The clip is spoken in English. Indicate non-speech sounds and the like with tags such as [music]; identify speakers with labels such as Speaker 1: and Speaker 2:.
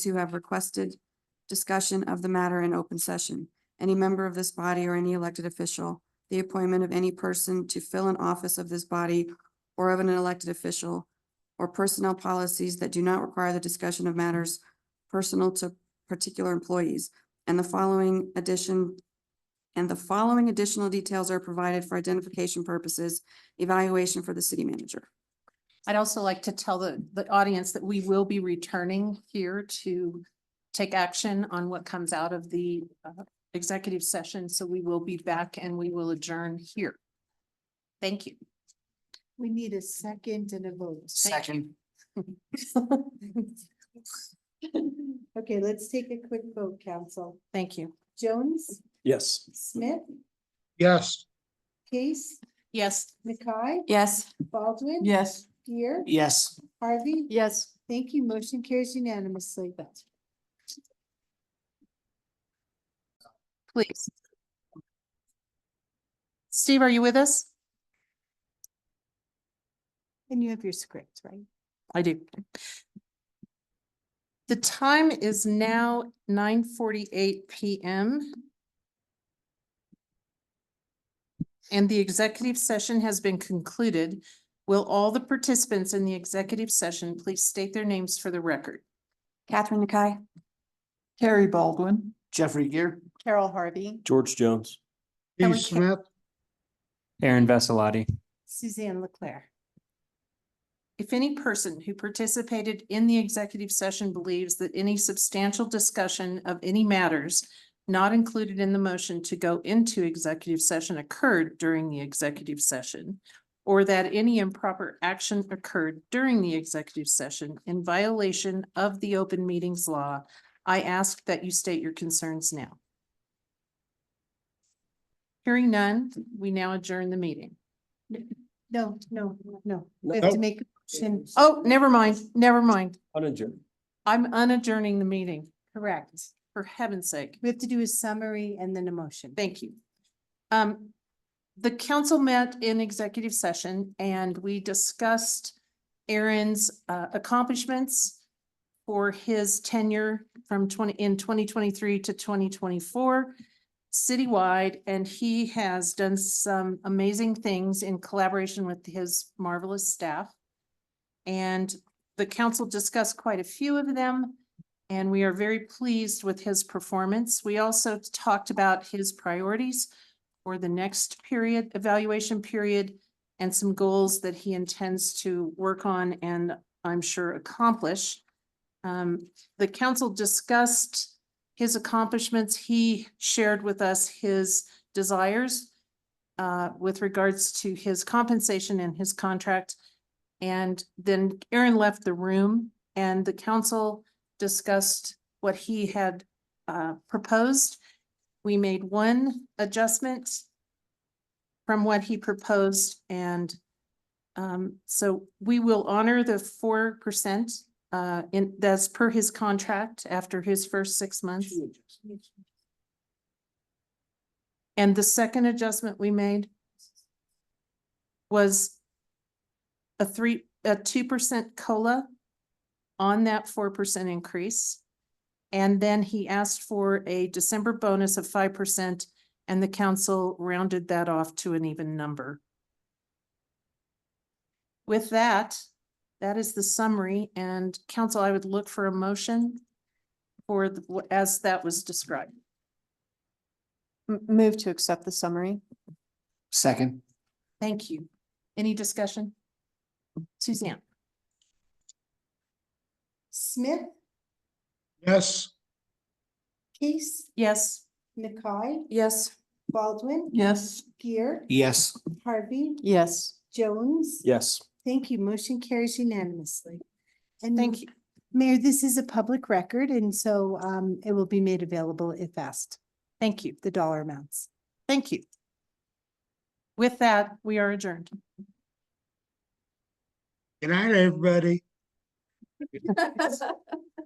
Speaker 1: who have requested discussion of the matter in open session. Any member of this body or any elected official, the appointment of any person to fill an office of this body or of an elected official, or personnel policies that do not require the discussion of matters personal to particular employees. And the following addition and the following additional details are provided for identification purposes, evaluation for the city manager.
Speaker 2: I'd also like to tell the, the audience that we will be returning here to take action on what comes out of the uh, executive session, so we will be back and we will adjourn here. Thank you.
Speaker 3: We need a second and a vote.
Speaker 2: Second.
Speaker 3: [laughs] Okay, let's take a quick vote, council.
Speaker 2: Thank you.
Speaker 3: Jones,
Speaker 4: Yes.
Speaker 3: Smith,
Speaker 4: Yes.
Speaker 3: Case,
Speaker 2: Yes.
Speaker 3: Nakai,
Speaker 1: Yes.
Speaker 3: Baldwin.
Speaker 2: Yes.
Speaker 3: Gear,
Speaker 4: Yes.
Speaker 3: Harvey.
Speaker 2: Yes.
Speaker 3: Thank you. Motion carries unanimously.
Speaker 2: Please. Steve, are you with us?
Speaker 3: And you have your script, right?
Speaker 2: I do. The time is now nine forty-eight PM. And the executive session has been concluded. Will all the participants in the executive session please state their names for the record?
Speaker 1: Catherine Nakai?
Speaker 5: Carrie Baldwin.
Speaker 4: Jeffrey Gear.
Speaker 3: Carol Harvey.
Speaker 4: George Jones.
Speaker 2: Kelly
Speaker 6: Steve
Speaker 2: Ca-
Speaker 6: Smith,
Speaker 5: Aaron Veselotti.
Speaker 3: Suzanne Leclerc.
Speaker 2: If any person who participated in the executive session believes that any substantial discussion of any matters not included in the motion to go into executive session occurred during the executive session, or that any improper action occurred during the executive session in violation of the open meetings law, I ask that you state your concerns now. Hearing none, we now adjourn the meeting.
Speaker 3: No, no, no. We have to
Speaker 6: No.
Speaker 3: make a motion.
Speaker 2: Oh, never mind, never mind.
Speaker 4: Uninjured.
Speaker 2: I'm unadjourning the meeting,
Speaker 3: Correct.
Speaker 2: for heaven's sake.
Speaker 3: We have to do a summary and then a motion.
Speaker 2: Thank you. Um, the council met in executive session and we discussed Aaron's uh, accomplishments for his tenure from twenty, in twenty twenty-three to twenty twenty-four citywide, and he has done some amazing things in collaboration with his marvelous staff. And the council discussed quite a few of them. And we are very pleased with his performance. We also talked about his priorities for the next period, evaluation period, and some goals that he intends to work on and I'm sure accomplish. Um, the council discussed his accomplishments. He shared with us his desires uh, with regards to his compensation and his contract. And then Aaron left the room and the council discussed what he had uh, proposed. We made one adjustment from what he proposed and um, so we will honor the four percent uh, in, that's per his contract after his first six months. And the second adjustment we made was a three, a two percent COLA on that four percent increase. And then he asked for a December bonus of five percent, and the council rounded that off to an even number. With that, that is the summary, and council, I would look for a motion for, the- as that was described.
Speaker 3: Move to accept the summary.
Speaker 4: Second.
Speaker 2: Thank you. Any discussion? Suzanne?
Speaker 3: Smith,
Speaker 6: yes.
Speaker 3: Case,
Speaker 2: Yes.
Speaker 3: Nakai,
Speaker 1: Yes.
Speaker 3: Baldwin,
Speaker 2: Yes.
Speaker 3: Gear,
Speaker 4: Yes.
Speaker 3: Harvey,
Speaker 2: Yes.
Speaker 3: Jones.
Speaker 4: Yes.
Speaker 3: Thank you. Motion carries unanimously. And
Speaker 2: Thank you.
Speaker 3: Mayor, this is a public record and so um it will be made available if asked,
Speaker 2: Thank you.
Speaker 3: the dollar amounts.
Speaker 2: Thank you. With that, we are adjourned.
Speaker 6: Good night, everybody.